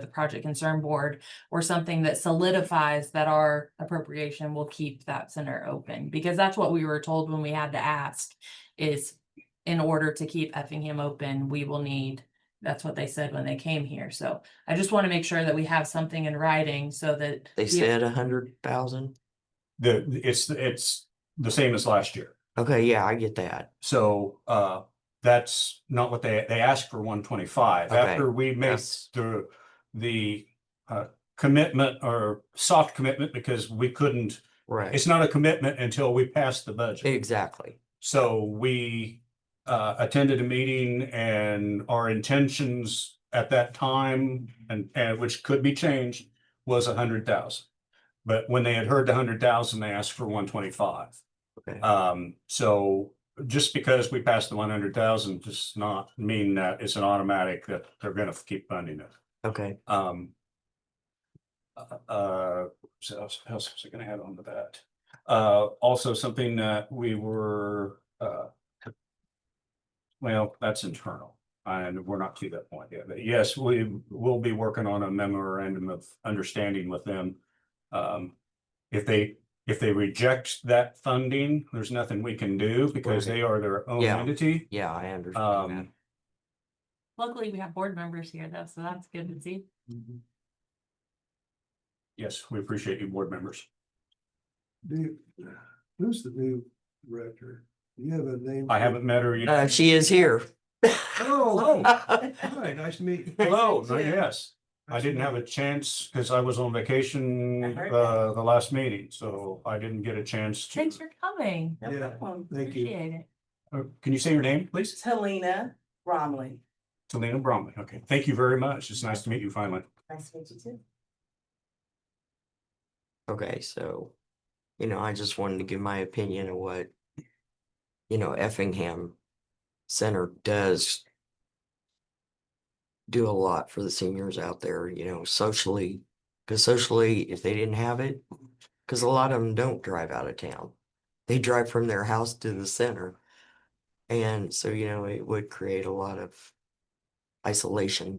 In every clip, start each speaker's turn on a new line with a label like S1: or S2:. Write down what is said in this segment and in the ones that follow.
S1: the project concern board or something that solidifies that our appropriation will keep that center open, because that's what we were told when we had to ask is in order to keep Effingham open, we will need, that's what they said when they came here. So I just want to make sure that we have something in writing so that.
S2: They
S1: the-
S2: said a hundred thousand.
S3: The, it's, it's the same as last year.
S2: Okay, yeah, I get that.
S3: So, uh, that's not what they, they asked for one twenty-five.
S2: Okay.
S3: After we made
S2: Yes.
S3: the, the, uh, commitment or soft commitment because we couldn't,
S2: Right.
S3: it's not a commitment until we pass the budget.
S2: Exactly.
S3: So we uh attended a meeting and our intentions at that time and and which could be changed was a hundred thousand. But when they had heard the hundred thousand, they asked for one twenty-five.
S2: Okay.
S3: Um, so just because we passed the one hundred thousand does not mean that it's an automatic that they're gonna keep funding it.
S2: Okay.
S3: Um. uh, Uh, so else, else was I gonna add on to that? Uh, also something that we were, uh. Well, that's internal and we're not to that point yet, but yes, we will be working on a memorandum of understanding with them. Um, if they, if they reject that funding, there's nothing we can do because
S2: Right.
S3: they are their own
S2: Yeah.
S3: entity.
S2: Yeah, I understand that.
S3: Um,
S1: Luckily, we have board members here though, so that's good to see.
S3: yes, we appreciate you board members.
S4: Do you, who's the new director? Do you have a name?
S3: I haven't met her yet.
S2: Uh, she is here.
S3: Um, Oh,
S4: Hi, nice to meet you.
S3: Hello,
S1: Thank
S3: no,
S1: you.
S3: yes, I
S4: Nice to
S3: didn't have
S4: meet
S3: a chance because I was on
S1: I
S3: vacation,
S1: heard
S3: uh, the last meeting, so I didn't get a chance to.
S1: Thanks for coming.
S4: you. Yeah,
S5: Um,
S4: thank you.
S1: Appreciate it.
S3: Uh, Can you say your name, please?
S5: Helena Romley.
S3: Talina Bromley, okay, thank you very much, it's nice to meet you finally.
S5: Nice to meet you too.
S2: Okay, so, you know, I just wanted to give my opinion of what, you know, Effingham Center does do a lot for the seniors out there, you know, socially, because socially, if they didn't have it, because a lot of them don't drive out of town. They drive from their house to the center. And so, you know, it would create a lot of isolation.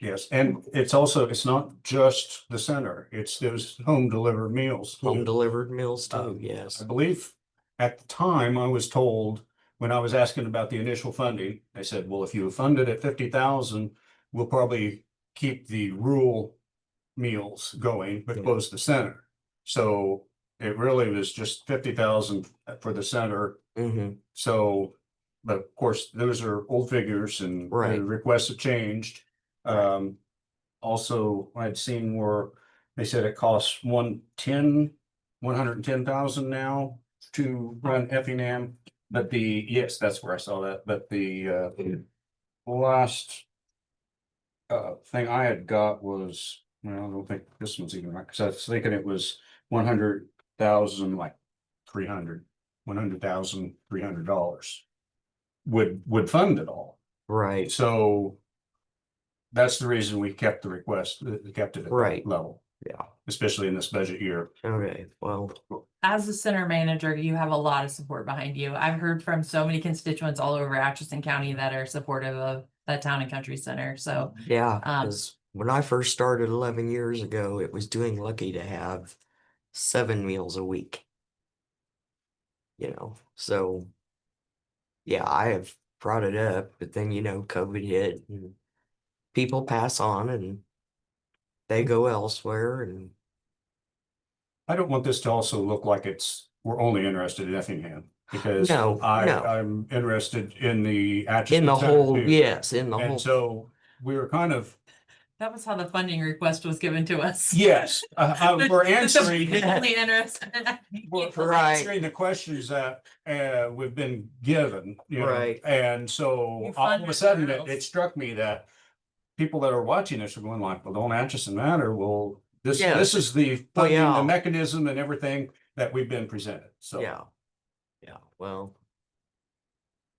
S3: Yes, and it's also, it's not just the center, it's those home delivered meals. too.
S2: Home delivered meals too,
S3: Um,
S2: yes.
S3: I believe at the time I was told, when I was asking about the initial funding, they said, well, if you fund it at fifty thousand, we'll probably keep the rural meals going, but
S2: Yeah.
S3: close the center. So it really was just fifty thousand for the center.
S2: hmm
S3: So, but of course, those are old figures and
S2: Right.
S3: the requests have changed. Um, also, I'd seen where they said it costs one ten, one hundred and ten thousand now to run Effingham. But the, yes, that's where I saw that, but the uh, last uh, thing I had got was, well, I don't think this one's even right, because I was thinking it was one hundred thousand, like three hundred, one hundred thousand, three hundred dollars would, would fund it all.
S2: Right,
S3: So that's the reason we kept the request, uh, kept it at
S2: Right.
S3: that level,
S2: yeah.
S3: especially in this budget year.
S2: Okay, well,
S1: As the center manager, you have a lot of support behind you. I've heard from so many constituents all over Atchison County that are supportive of that town and country center. So
S2: yeah,
S1: Um,
S2: because when I first started eleven years ago, it was doing lucky to have seven meals a week. You know, so yeah, I have brought it up, but then you know, COVID hit and people pass on and they go elsewhere and
S3: I don't want this to also look like it's, we're only interested in Effingham because
S2: No,
S3: I,
S2: no.
S3: I'm interested in the. Atchison
S2: in the
S3: Center,
S2: whole,
S3: too.
S2: yes, in the
S3: And
S2: whole,
S3: so we were kind of,
S1: that was how the funding request was given to us.
S3: Mm-hmm. yes, uh, uh, we're
S1: Just a
S3: answering,
S1: Only interest.
S3: we're we're
S2: Right.
S3: answering the questions that uh, we've been given, you know,
S2: Right.
S3: And
S1: You
S3: so all
S1: fund
S3: of
S1: your
S3: a sudden, it,
S1: girls.
S3: it struck me that people that are watching this are going like, well, don't Atchison matter? Well, this, this
S2: Yes.
S3: is the
S2: Well,
S3: funding,
S2: yeah.
S3: the mechanism and everything that we've been presented. So.
S2: yeah. Yeah, well.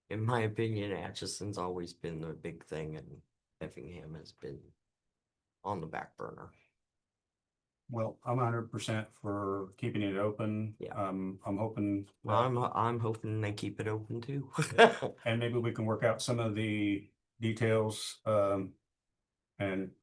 S2: In my opinion, Atchison's always been the big thing and Effingham has been on the back burner.
S3: Well, I'm hundred percent for keeping it open.
S2: Yeah.
S3: Um, I'm hoping,
S2: Well,
S3: that-
S2: I'm, ho- I'm hoping they keep it open too.
S3: and maybe we can work out some of the details, um, and